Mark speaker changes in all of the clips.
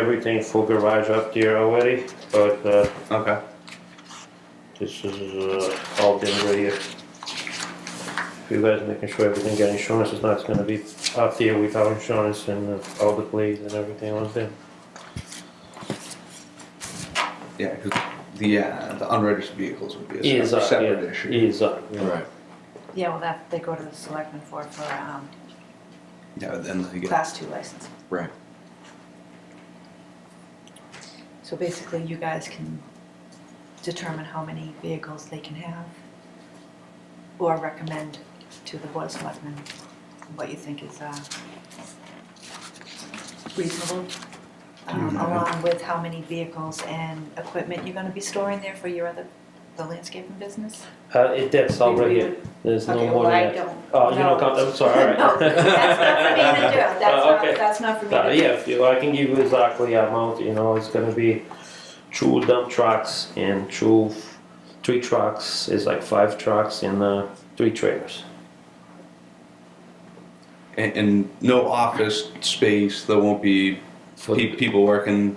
Speaker 1: everything full garage up there already, but uh,
Speaker 2: Okay.
Speaker 1: this is uh, all been right here. If you guys making sure everything got insurance, it's not gonna be up there without insurance and uh, all the blades and everything on there.
Speaker 2: Yeah, because the uh, the unregistered vehicles would be a
Speaker 1: Is
Speaker 2: separate,
Speaker 1: up,
Speaker 2: separate
Speaker 1: yeah,
Speaker 2: issue.
Speaker 1: is up.
Speaker 3: Right.
Speaker 4: Yeah, well, that, they go to the selectmen for, for, um,
Speaker 2: Yeah, but then they get,
Speaker 4: class two license.
Speaker 3: Right.
Speaker 4: So basically, you guys can determine how many vehicles they can have or recommend to the board of selectmen what you think is, uh, reasonable. Um,
Speaker 2: Mhm.
Speaker 4: along with how many vehicles and equipment you're gonna be storing there for your other, the landscaping business?
Speaker 1: Uh, it, that's all right here, there's no
Speaker 4: Okay,
Speaker 1: more
Speaker 4: well, I
Speaker 1: than that.
Speaker 4: don't.
Speaker 1: Oh, you
Speaker 4: know.
Speaker 1: don't count, I'm sorry,
Speaker 4: No,
Speaker 1: all right.
Speaker 4: that's not for me to do,
Speaker 1: Uh,
Speaker 4: that's not,
Speaker 1: okay.
Speaker 4: that's not for me to
Speaker 1: Uh,
Speaker 4: do.
Speaker 1: yeah, if you, I can give you exactly amount, you know, it's gonna be two dump trucks and two, three trucks, is like five trucks and, uh, three trailers.
Speaker 2: and, and no office space. There won't be
Speaker 1: For-
Speaker 2: pe- people working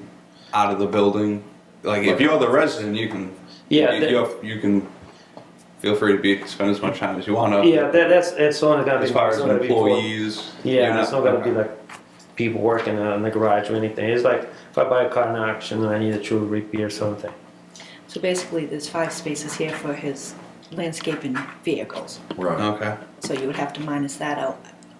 Speaker 2: out of the building. Like if you're the resident, you can
Speaker 1: Yeah,
Speaker 2: you,
Speaker 1: that-
Speaker 2: you're- you can feel free to be spend as much time as you want. Up
Speaker 1: Yeah, that, that's, it's only gonna be.
Speaker 2: as far
Speaker 1: it's
Speaker 2: as
Speaker 1: gonna be for-
Speaker 2: employees, you're
Speaker 1: Yeah, it's not gonna be like people working uh, in the garage or anything, it's like, if I buy a car in auction and I need to repair something.
Speaker 4: So basically, there's five spaces here for his landscaping vehicles,
Speaker 3: Right.
Speaker 2: okay.
Speaker 4: so you would have to minus that out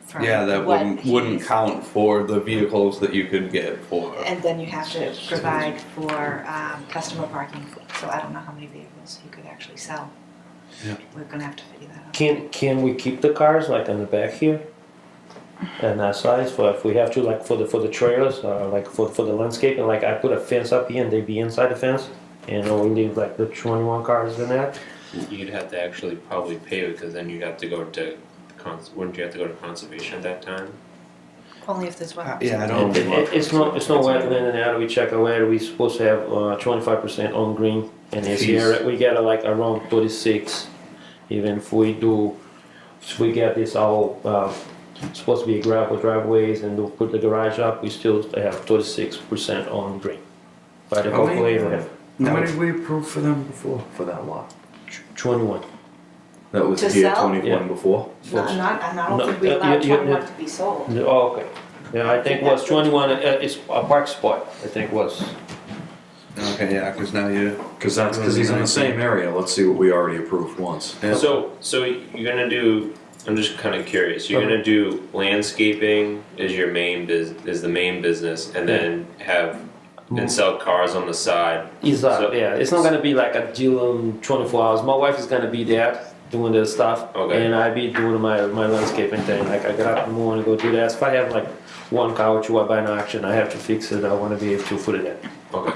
Speaker 4: from
Speaker 2: Yeah, that
Speaker 4: what
Speaker 2: wouldn't wouldn't
Speaker 4: he's-
Speaker 2: count for the vehicles that you could get for.
Speaker 4: And then you have to provide for um, customer parking, so I don't know how many vehicles you could actually sell.
Speaker 2: Yeah.
Speaker 4: We're gonna have to figure that out.
Speaker 1: Can, can we keep the cars like in the back here? And that size, for if we have to, like for the, for the trailers, uh, like for, for the landscape, and like I put a fence up here and they be inside the fence? And we leave like the twenty-one cars in there?
Speaker 5: You'd have to actually probably pave it, because then you'd have to go to cons, wouldn't you have to go to conservation at that time?
Speaker 4: Only if there's one.
Speaker 2: Uh, yeah, I don't.
Speaker 1: It, it- it's not, it's not wetland and how do we check our where we supposed to have, uh, twenty-five percent on green? And this year,
Speaker 2: Jeez.
Speaker 1: we get uh, like around thirty-six, even if we do, if we get this all, uh, supposed to be gravel driveways and we'll put the garage up, we still have thirty-six percent on green. But
Speaker 3: How many-
Speaker 1: hopefully, we have
Speaker 3: How
Speaker 2: No.
Speaker 3: many did we approve for them before? For that lot.
Speaker 1: twenty-one.
Speaker 3: That was
Speaker 4: To
Speaker 3: year
Speaker 4: sell?
Speaker 1: Yeah.
Speaker 3: twenty-one before?
Speaker 4: No, I'm not, I'm not-
Speaker 1: No,
Speaker 4: I don't think we
Speaker 1: uh,
Speaker 4: allow
Speaker 1: you- you-
Speaker 4: twenty-one to be sold.
Speaker 1: Oh, okay. Yeah, I think was
Speaker 4: That's-
Speaker 1: twenty-one, uh, it's a park spot, I think was.
Speaker 2: Okay, yeah, because now you.
Speaker 3: Cause that's, cause he's in the same area, let's see what we already approved once.
Speaker 2: Yeah.
Speaker 5: So, so you're gonna do, I'm just kinda curious, you're
Speaker 1: Okay.
Speaker 5: gonna do landscaping is your main bus, is the main business, and then have, and sell cars on the side?
Speaker 1: Is up,
Speaker 5: So-
Speaker 1: yeah. It's not gonna be like a deal in 24 hours. My wife is gonna be there doing the stuff,
Speaker 5: Okay.
Speaker 1: and I be doing my my landscaping thing. Like I get up in the morning, go do that. If I have like one couch or I buy an auction, I have to fix it. I want to be able to put it in.
Speaker 5: Okay.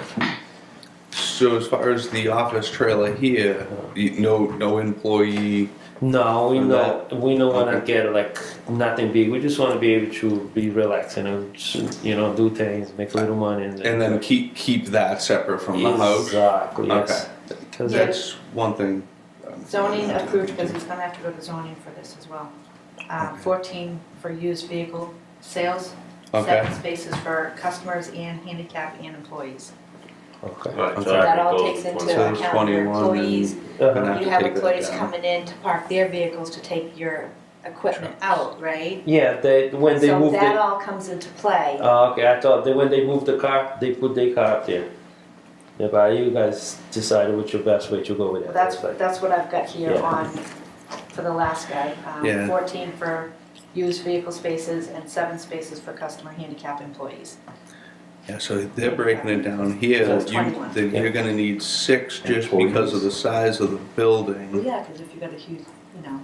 Speaker 2: So as far as the office trailer here, you, no, no employee.
Speaker 1: No, we
Speaker 2: And
Speaker 1: know we don't want to
Speaker 2: okay.
Speaker 1: get like nothing big. We just want to be able to be relaxed and uh, just, you know do things, make a little money, and,
Speaker 2: And then keep keep that separate from the house.
Speaker 1: Exactly. Yes.
Speaker 2: Okay,
Speaker 1: 'Cause
Speaker 4: Yeah.
Speaker 2: that's one thing.
Speaker 4: Zoning approved, because he's gonna have to go to zoning for this as well. Um, Fourteen for used vehicle sales,
Speaker 2: Okay.
Speaker 4: seven spaces for customers and handicap and employees.
Speaker 1: Okay.
Speaker 5: Alright, so
Speaker 2: Okay.
Speaker 4: That all
Speaker 5: goes
Speaker 4: takes
Speaker 5: one
Speaker 4: into
Speaker 5: side.
Speaker 2: So there's
Speaker 4: account your
Speaker 2: 21 and-
Speaker 4: employees,
Speaker 1: Uh-huh.
Speaker 2: have
Speaker 4: you
Speaker 2: to
Speaker 4: have
Speaker 2: take that
Speaker 4: employees
Speaker 2: down.
Speaker 4: coming in to park their vehicles to take your equipment out, right?
Speaker 1: Yeah, they when they
Speaker 4: So
Speaker 1: move
Speaker 4: that
Speaker 1: the-
Speaker 4: all comes into play.
Speaker 1: Oh, okay, I thought that when they moved the car, they put their car up there. Yeah, but you guys decided what's your best way to go with that.
Speaker 4: That's,
Speaker 1: It's like-
Speaker 4: that's what I've got here
Speaker 1: Yeah.
Speaker 4: on, for the last guy. um,
Speaker 2: Yeah.
Speaker 4: Fourteen for used vehicle spaces and seven spaces for customer handicap employees.
Speaker 2: Yeah, so they're breaking it down here.
Speaker 4: So it's
Speaker 2: you,
Speaker 4: 21.
Speaker 2: that you're going to need six just
Speaker 3: Employees.
Speaker 2: because of the size of the
Speaker 4: Well,
Speaker 2: building.
Speaker 4: yeah, because if you've got a huge, you know,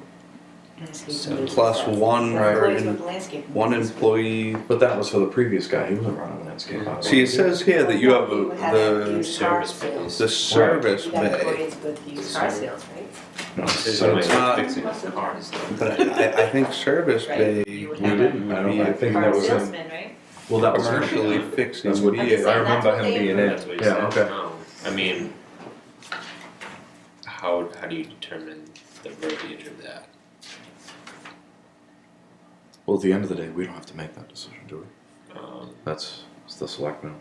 Speaker 2: So
Speaker 4: landscape.
Speaker 2: plus one for
Speaker 4: Employees
Speaker 2: in-
Speaker 4: with landscape.
Speaker 2: One employee.
Speaker 3: But that was for the previous guy, he wasn't running landscape.
Speaker 2: See, it says here that you have
Speaker 4: We had a
Speaker 2: a,
Speaker 4: used car
Speaker 5: service
Speaker 4: sales.
Speaker 2: the the service
Speaker 4: You got
Speaker 2: bay.
Speaker 4: employees with used car sales, right?
Speaker 3: No,
Speaker 5: Is
Speaker 3: so
Speaker 5: it
Speaker 3: it's
Speaker 2: it's not-
Speaker 5: like fixing the cars though?
Speaker 2: But I, I think service
Speaker 4: Right,
Speaker 2: bay
Speaker 4: you would
Speaker 3: We
Speaker 4: have
Speaker 3: didn't, I
Speaker 2: would
Speaker 3: don't,
Speaker 2: be
Speaker 3: I
Speaker 2: a
Speaker 3: think
Speaker 4: Car
Speaker 3: that was him.
Speaker 4: salesman, right?
Speaker 3: Well, that was him.
Speaker 2: commercially fixing
Speaker 3: That's what he is. I
Speaker 2: vehicles.
Speaker 3: remember him
Speaker 4: That's what they
Speaker 3: being in.
Speaker 5: That's what you
Speaker 3: Yeah,
Speaker 5: said,
Speaker 3: okay.
Speaker 5: no, I mean. How, how do you determine the verbiage of that?
Speaker 3: Well, at the end of the day, we don't have to make that decision, do we?
Speaker 5: Um,
Speaker 3: That's, it's the selectmen.